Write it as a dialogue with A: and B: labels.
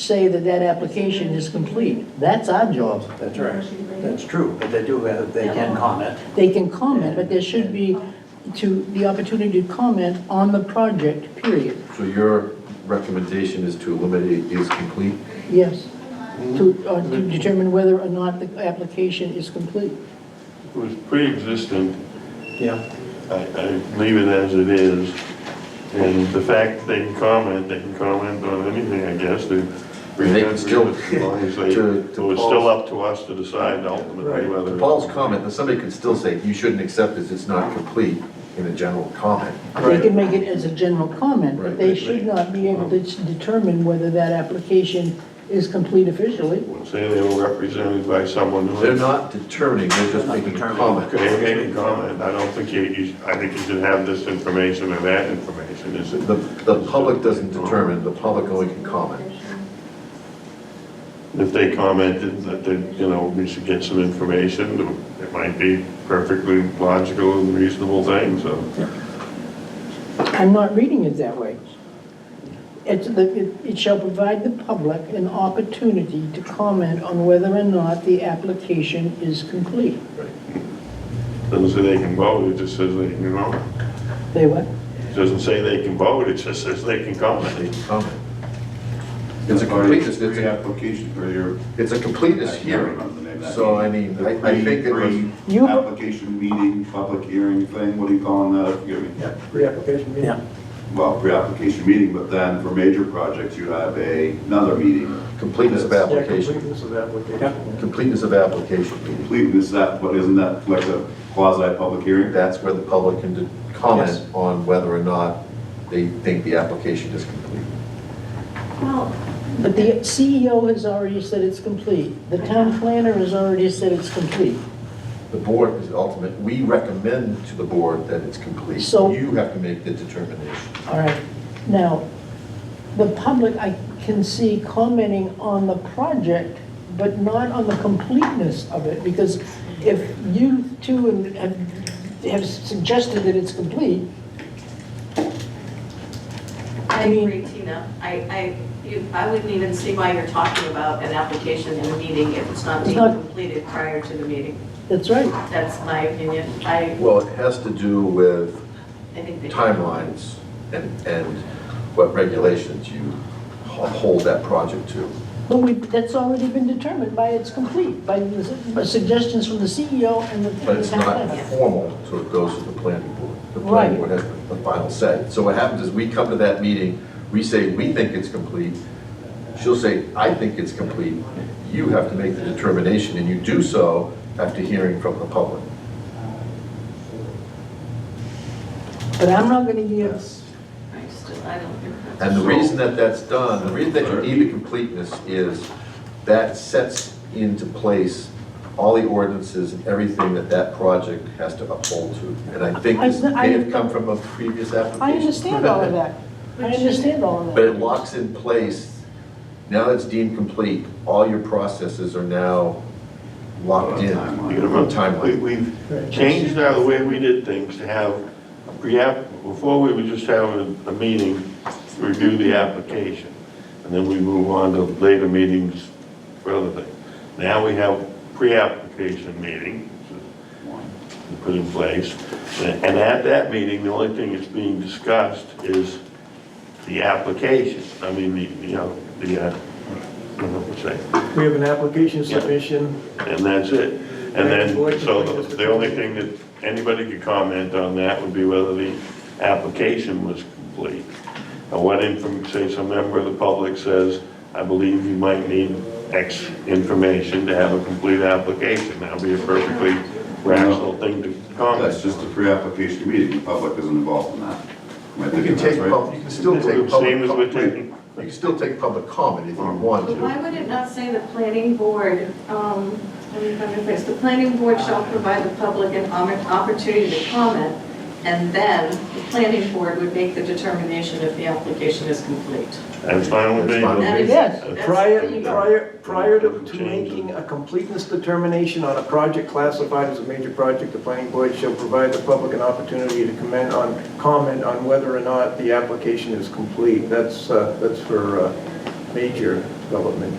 A: say that that application is complete. That's our job.
B: That's right, that's true, but they do have, they can comment.
A: They can comment, but there should be to, the opportunity to comment on the project, period.
C: So your recommendation is to eliminate is complete?
A: Yes. To, uh, to determine whether or not the application is complete.
D: It was pre-existing,
B: Yeah.
D: I, I leave it as it is. And the fact they can comment, they can comment on anything, I guess, they.
C: They can still-
D: As long as they,
C: To-
D: it
C: to
D: was
C: Paul's-
D: still up to us to decide ultimately whether.
C: Paul's comment, that somebody could still say, you shouldn't accept this, it's not complete, in a general comment.
A: They can make it as a general comment, but they
C: Right. Uh-huh.
A: should not be able to determine whether that application is complete officially.
D: Say they were represented by someone who.
C: They're not determining, they're
B: They're
C: just
B: not
C: making a
B: determining.
C: comment.
D: Okay, okay, any comment, I don't think you, you- I think you should have this information or that information, is it?
C: The, the public doesn't determine, the public only can comment.
D: If they commented that, they, you know, we should get some information, it might be perfectly logical and reasonable thing, so.
A: I'm not reading it that way. It's the, it- it shall provide the public an opportunity to comment on whether or not the application is complete.
D: Doesn't say they can vote, it just says they can comment.
A: They what?
D: It Doesn't say they can vote, it just says they can comment.
C: Comment. It's a completeness, it's a,
E: Pre-application for your.
C: it's a completeness
E: I can't
C: hearing,
E: remember the name of that
C: so I
E: meeting.
C: mean,
E: The
C: I, I think it was.
E: pre-
A: You-
E: Pre-application meeting, public hearing thing, what do you call that? You mean-
B: Yeah, pre-application meeting. Yeah.
E: Well, pre-application meeting, but then for major projects, you have a, another meeting.
C: Completeness of
E: That's
C: application,
B: of application.
C: completeness of application meeting.
E: Completeness, that, what, isn't that like a quasi-public hearing?
C: That's where the public can de-
B: Yes.
C: comment on whether or not they think the application is complete.
A: But the CEO has already said it's complete. The town planner has already said it's complete.
C: The board is ultimate, we recommend to the board that it's complete.
A: So-
C: You have to make the determination.
A: All right. Now, the public, I can see commenting on the project, but not on the completeness of it, because if you two have, have suggested that it's complete,
F: I agree, Tina. I, I, you- I wouldn't even see why you're talking about an application in a meeting if it's not
A: It's
F: being
A: not-
F: completed prior to the meeting.
A: that's right.
F: That's my opinion. I,
C: Well, it has to do with
F: I think they.
C: timelines and, and what regulations you ho- hold that project to.
A: But we, that's already been determined by it's complete, by the by suggestions from the CEO and the.
C: But it's not
A: Yeah.
C: formal, so it goes to the planning board. The
A: Right.
C: planning board has the final say. So what happens is we come to that meeting, we say, we think it's complete. She'll say, I think it's complete. You have to make the determination, and you do so after hearing from the public.
A: But I'm not gonna give,
F: I still, I don't think that's.
C: And the reason that that's done, the reason that you need the completeness is that sets into place all the ordinances and everything that that project has to uphold to. And I think this may have come from a previous application.
A: I understand all of that. I understand all of
C: But
A: that.
C: it locks in place, now that it's deemed complete, all your processes are now locked in.
E: Timeline.
D: You know, we-
C: Timeline.
D: We've changed now the way we did things to have a pre-app, before we would just have a, a meeting, to review the application, and then we move on to later meetings for other things. Now we have pre-application meeting put in place, and at that meeting, the only thing that's being discussed is the application, I mean, the, you know, the, uh, I don't know what to say.
G: We have an application submission.
D: And that's it. And then, so the the only thing that anybody could comment on that would be whether the application was complete. And what inform, say some member of the public says, I believe you might need X information to have a complete application. That would be a perfectly rational thing to
E: That's
D: comment.
E: just a pre-application meeting, the public isn't involved in that. Am I
C: You
E: thinking
C: can take,
E: that's right?
C: pub- you can still take
D: Same as we're
C: public,
D: taking.
C: you can still take public comment if you want
H: But
C: to.
H: why would it not say the planning board, um, let me find my place, the planning board shall provide the public an oppor- opportunity to comment,
F: And then the planning board would make the determination if the application is complete.
D: That's fine with
C: That's fine.
D: me.
F: That is-
A: Yes.
F: that's-
G: Prior,
F: there you go.
G: prior, prior to to
D: uh, Change it.
G: making a completeness determination on a project classified as a major project, the planning board shall provide the public an opportunity to comment on, comment on whether or not the application is complete. That's, uh, that's for uh, major development.